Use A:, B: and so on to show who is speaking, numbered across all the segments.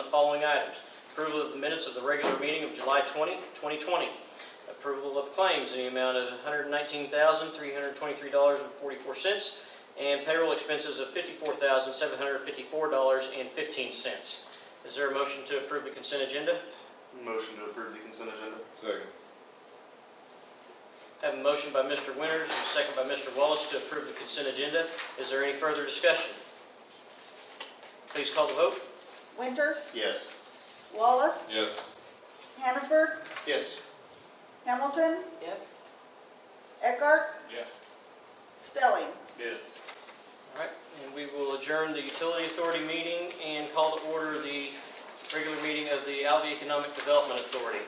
A: following items. Approval of the minutes of the regular meeting of July 20, 2020. Approval of claims in the amount of $119,323.44 and payroll expenses of $54,754.15. Is there a motion to approve the consent agenda?
B: Motion to approve the consent agenda.
C: Second.
A: Have a motion by Mr. Winters and a second by Mr. Wallace to approve the consent agenda. Is there any further discussion? Please call the vote.
D: Winters,
B: Yes.
D: Wallace,
C: Yes.
D: Hannaford,
B: Yes.
D: Hamilton,
E: Yes.
D: Eckhart,
C: Yes.
D: Stelling.
B: Yes.
A: All right, and we will adjourn the utility authority meeting and call to order the regular meeting of the Alva Economic Development Authority.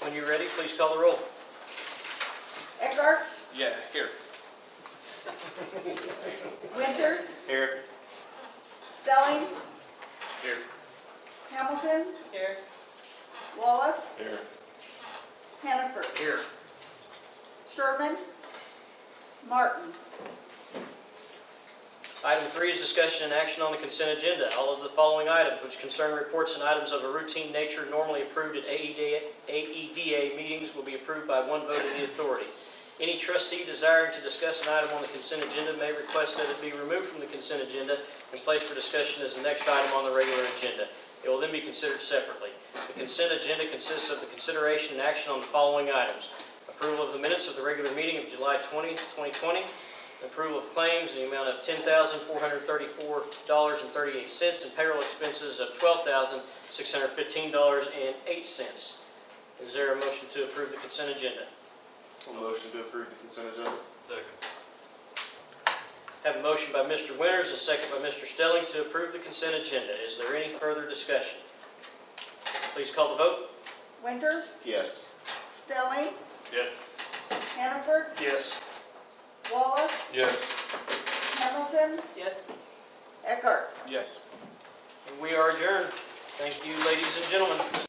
A: When you're ready, please call the roll.
D: Eckhart,
C: Yeah, here.
D: Winters,
B: Here.
D: Stelling,
B: Here.
D: Hamilton,
E: Here.
D: Wallace,
C: Here.
D: Hannaford,
B: Here.
D: Sherman, Martin.
A: Item three is discussion and action on the consent agenda. All of the following items, which concern reports and items of a routine nature normally approved at E AEDA AEDA meetings, will be approved by one vote of the authority. Any trustee desiring to discuss an item on the consent agenda may request that it be removed from the consent agenda and placed for discussion as the next item on the regular agenda. It will then be considered separately. The consent agenda consists of the consideration and action on the following items. Approval of the minutes of the regular meeting of July 20, 2020, Approval of claims in the amount of ten thousand four hundred thirty-four dollars and thirty-eight cents and payroll expenses of twelve thousand six hundred fifteen dollars and eight cents. Is there a motion to approve the consent agenda?
B: Motion to approve the consent agenda.
A: Have a motion by Mr. Winters, a second by Mr. Stelling to approve the consent agenda. Is there any further discussion? Please call the vote.
D: Winters,
B: Yes.
D: Stelling,
C: Yes.
D: Hannaford,
B: Yes.
D: Wallace,
C: Yes.
D: Hamilton,
E: Yes.
D: Eckhart.
C: Yes.
A: We are adjourned. Thank you, ladies and gentlemen.